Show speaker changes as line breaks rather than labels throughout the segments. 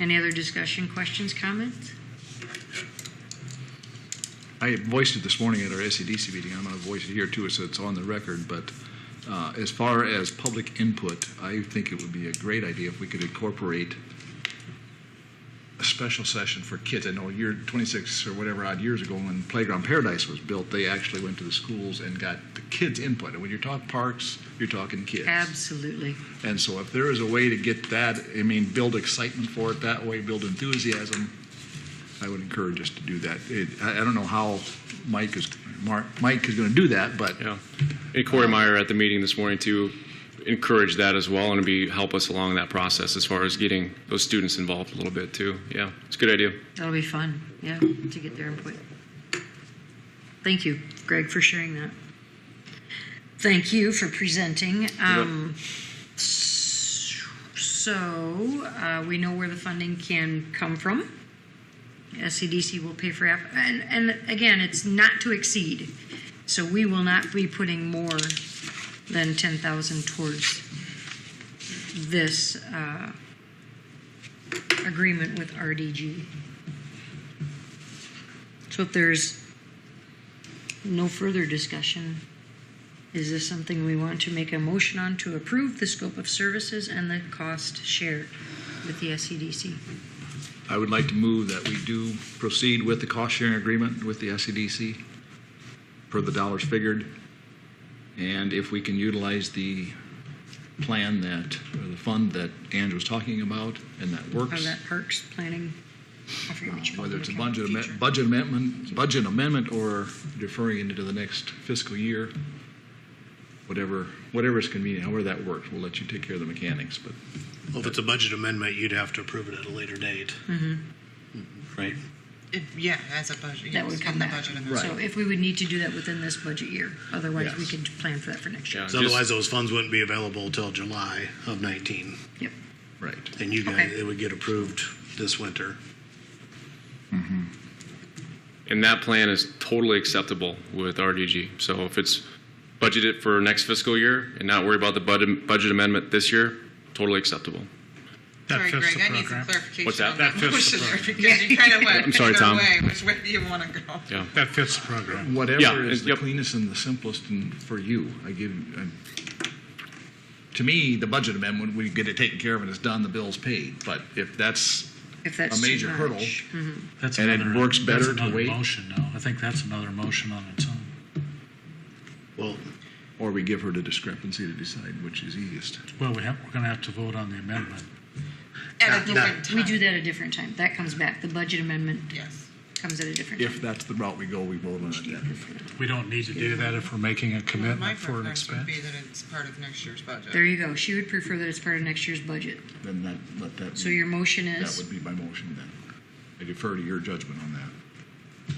Any other discussion, questions, comments?
I voiced it this morning at our SEDC meeting, I'm going to voice it here too, so it's on the record, but uh, as far as public input, I think it would be a great idea if we could incorporate a special session for kids. I know a year, 26 or whatever odd years ago, when Playground Paradise was built, they actually went to the schools and got the kids' input. And when you're talking parks, you're talking kids.
Absolutely.
And so if there is a way to get that, I mean, build excitement for it that way, build enthusiasm, I would encourage us to do that. It, I, I don't know how Mike is, Mark, Mike is going to do that, but
Yeah. And Corey Meyer at the meeting this morning to encourage that as well and be, help us along that process as far as getting those students involved a little bit too. Yeah, it's a good idea.
That'll be fun, yeah, to get their input. Thank you, Greg, for sharing that. Thank you for presenting. Um, s- So, uh, we know where the funding can come from. SCDC will pay for, app- and, and again, it's not to exceed. So we will not be putting more than 10,000 towards this uh, agreement with RDG. So if there's no further discussion, is this something we want to make a motion on to approve the scope of services and the cost shared with the E SCDC?
I would like to move that we do proceed with the cost-sharing agreement with the SCDC per the dollars figured. And if we can utilize the plan that, or the fund that Andrew was talking about, and that
Or
works.
that parks planning? I forget which
whether it's a
account,
budget
future.
amendment, budget amendment, budget amendment or deferring it into the next fiscal year, whatever, whatever is convenient, however that works, we'll let you take care of the mechanics, but
Well, if it's a budget amendment, you'd have to approve it at a later date.
Mm-hmm.
Right.
It, yeah, as a budget.
That
yes,
would
in
come
the
back.
budget amendment.
So if we would need to do that within this budget year, otherwise we
Yes.
could plan for that for next year.
Yeah,
So otherwise, those funds wouldn't be available till July of 19,
Yep.
right.
and you guys,
Okay.
it would get approved this winter.
And that plan is totally acceptable with RDG. So if it's budgeted for next fiscal year and not worry about the budget, budget amendment this year, totally acceptable.
Sorry,
fits
Greg,
the
I need some
program.
clarification.
What's that?
on
That
fits the
motion there,
program.
Because you kind of went.
I'm sorry,
either
Tom.
way, Which way do you want to go?
Yeah.
That fits the program.
Yeah,
Whatever is
it-
the
yep.
cleanest and the simplest and for you, I give, I- to me, the budget amendment, we get it taken care of and it's done, the bill's paid, but if that's
If that's
a
too
major hurdle,
much.
That's
And it
another-
works
that's
better to
another
wait?
Motion now. I think that's another motion on its own.
Well,
or we give her the discrepancy to decide which is easiest.
Well, we have, we're going to have to vote on the amendment.
At a
Now-
different time.
We do that a different time. That comes back. The budget amendment
Yes.
comes at a different time.
If that's the route we go, we vote on it then.
We don't need to do that if we're making a
Well, My
commitment for an
preference would
expense.
be that it's part of next year's budget.
There you go. She would prefer that it's part of next year's budget.
Then that, let that be.
So your motion
That
is,
would be my motion then. I defer to your judgment on that.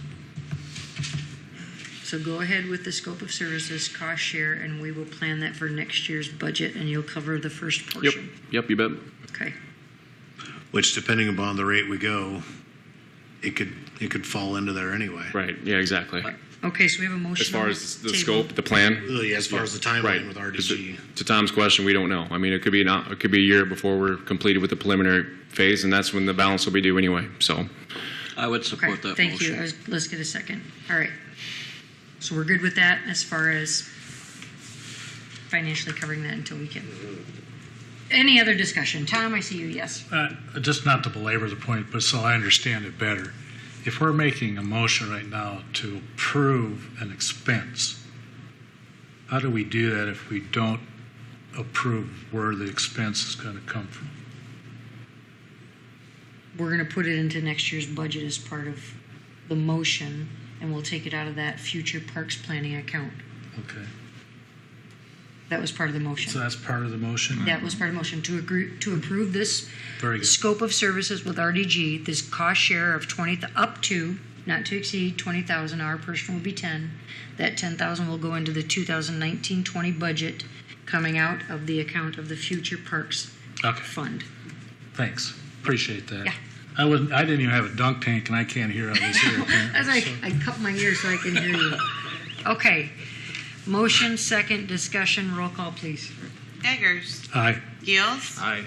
so go ahead with the scope of services, cost share, and we will plan that for next year's budget, and you'll cover the first
Yep.
portion.
Yep. You bet.
Okay.
which depending upon the rate we go, it could, it could fall into there anyway.
Right. Yeah, exactly.
Okay, so we have a motion.
As far
on
as the
table.
scope, the plan,
Really, as far as the
right.
timeline with RDG.
To Tom's question, we don't know. I mean, it could be not, it could be a year before we're completed with the preliminary phase and that's when the balance will be due anyway. So.
I would
Okay,
support that
Thank you. I
motion.
was- Let's get a second. All right. So we're good with that as far as financially covering that until we can. Any other discussion? Tom, I see you. Yes.
Uh, Just not to belabor the point, but so I understand it better. If we're making a motion right now to approve an expense, how do we do that if we don't approve where the expense is going to come from?
We're going to put it into next year's budget as part of the motion, and we'll take it out of that future parks planning account.
Okay,
That was part of the
so
motion.
that's part of the motion?
That was part of the motion to agree, to approve this
Very good.
scope of services with RDG, this cost share of 20, th- up to, not to exceed 20,000, our portion will be 10. That 10,000 will go into the 2019-20 budget coming out of the account of the Future Parks
Okay,
Fund.
thanks. Appreciate that.
Yeah.
I wasn't, I didn't even have a dunk tank and I can't hear on this here
I was
apparently.
like, I cup my ears so I can hear you. Okay. Motion, second, discussion, roll call, please.
Eggers,
Aye.
Gills,
Aye.